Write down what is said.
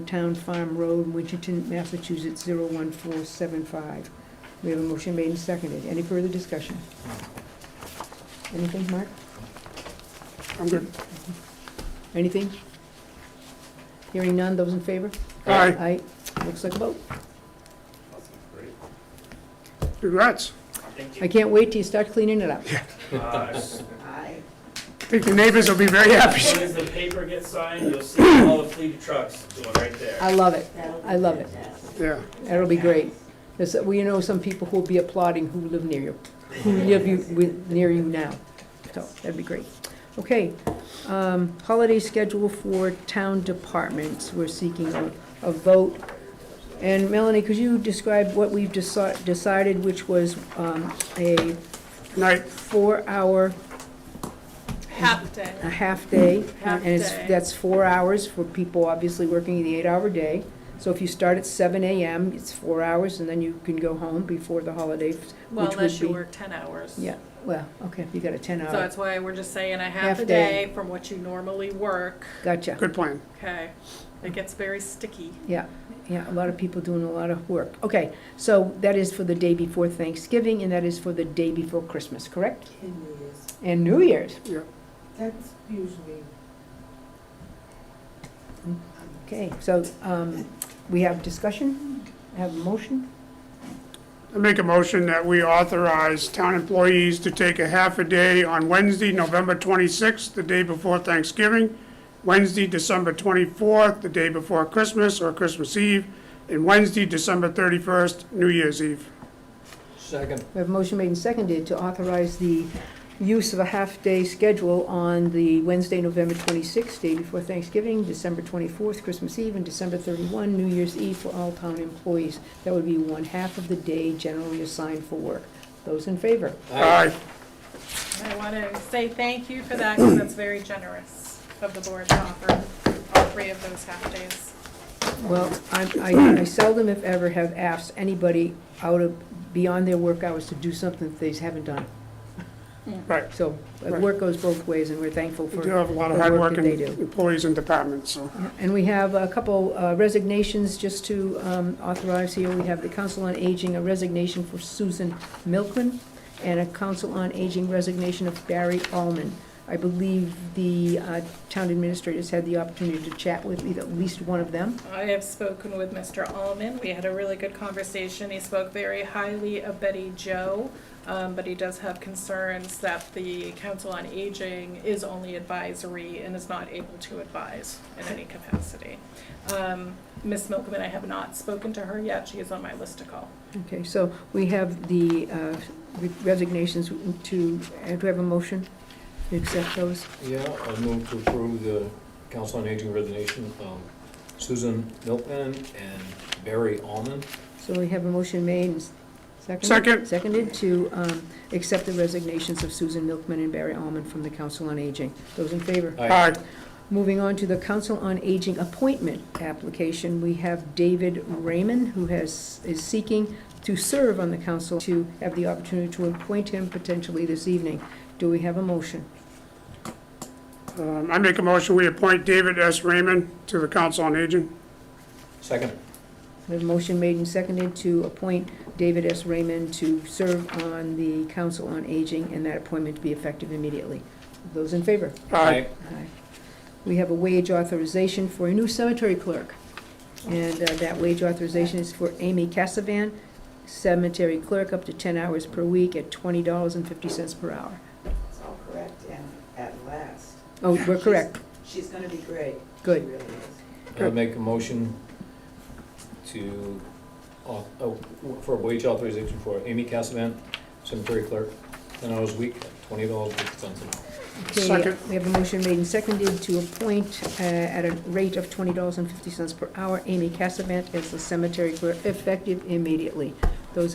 Town Farm Road, Winchton, Massachusetts, 01475. We have a motion made and seconded. Any further discussion? Anything, Mark? I'm good. Anything? Hearing none, those in favor? Aye. Aye. Looks like a vote. Congrats. I can't wait till you start cleaning it up. Uh, As I think your neighbors will be very happy. soon as the paper gets signed, you'll see all the fleet of trucks doing right there. I love it. I love it. Yeah. That'll be great. There's, we know some people who'll be applauding who live near you, who live you, with, near you now. So, that'd be great. Okay, um, holiday schedule for town departments, we're seeking a, a vote. And Melanie, could you describe what we've deci- decided, which was, um, a Night. four-hour, Half day. a half-day. Half And it's, day. that's four hours for people obviously working the eight-hour day. So if you start at seven AM, it's four hours, and then you can go home before the holiday, Well, which unless would you be. work ten hours. Yeah, well, okay, you got a So ten-hour, that's why we're just saying a Half half a day. day from what you normally work, gotcha. Good plan. okay? It gets very sticky. Yeah, yeah, a lot of people doing a lot of work. Okay, so that is for the day before Thanksgiving, and that is for the day before Christmas, correct? Ten years. And New Year's. That's usually. Okay, so, um, we have discussion, have a motion? I make a motion that we authorize town employees to take a half a day on Wednesday, November 26th, the day before Thanksgiving, Wednesday, December 24th, the day before Christmas or Christmas Eve, and Wednesday, December 31st, New Year's Eve. Second. We have a motion made and seconded to authorize the use of a half-day schedule on the Wednesday, November 26th, day before Thanksgiving, December 24th, Christmas Eve, and December 31, New Year's Eve for all town employees. That would be one half of the day generally assigned for work. Those in favor? Aye. I want to say thank you for that, because that's very generous of the board to offer all three of those half days. Well, I, I I seldom, if ever, have asked anybody out of, beyond their work hours to do something that they haven't done. Right. So, uh, work goes both ways, and we're thankful We for do have a lot of the work that hardworking they do. employees and departments, so. And we have a couple uh, resignations just to um, authorize here. We have the Council on Aging, a resignation for Susan Milken, and a Council on Aging resignation of Barry Alman. I believe the uh, town administrators had the opportunity to chat with either- at least one of them. I have spoken with Mr. Alman. We had a really good conversation. He spoke very highly of Betty Jo, um, but he does have concerns that the Council on Aging is only advisory and is not able to advise in any capacity. Um, Ms. Milkman, I have not spoken to her yet. She is on my list to call. Okay, so we have the uh, resignations to, uh, do we have a motion to accept those? Yeah, I move to approve the Council on Aging resignation of Susan Milton and Barry Alman. So we have a motion made and s- seconded? Second. Seconded to um, accept the resignations of Susan Milkman and Barry Alman from the Council on Aging. Those in favor? Aye. Aye. Moving on to the Council on Aging appointment application, we have David Raymond, who has, is seeking to serve on the council, to have the opportunity to appoint him potentially this evening. Do we have a motion? Um, I make a motion, we appoint David S. Raymond to the Council on Aging. Second. We have a motion made and seconded to appoint David S. Raymond to serve on the Council on Aging, and that appointment to be effective immediately. Those in favor? Aye. Aye. We have a wage authorization for a new cemetery clerk. And uh, that wage authorization is for Amy Cassavan, cemetery clerk, up to 10 hours per week at $20.50 per hour. It's all correct and at last. Oh, we're correct. She's gonna be great. She Good. really is. I make a motion to, au- oh, for wage authorization for Amy Cassavant, cemetery clerk, ten hours a week, twenty dollars fifty cents an hour. Okay, Second. we have a motion made and seconded to appoint uh, at a rate of $20.50 per hour Amy Cassavan as the cemetery clerk, effective immediately.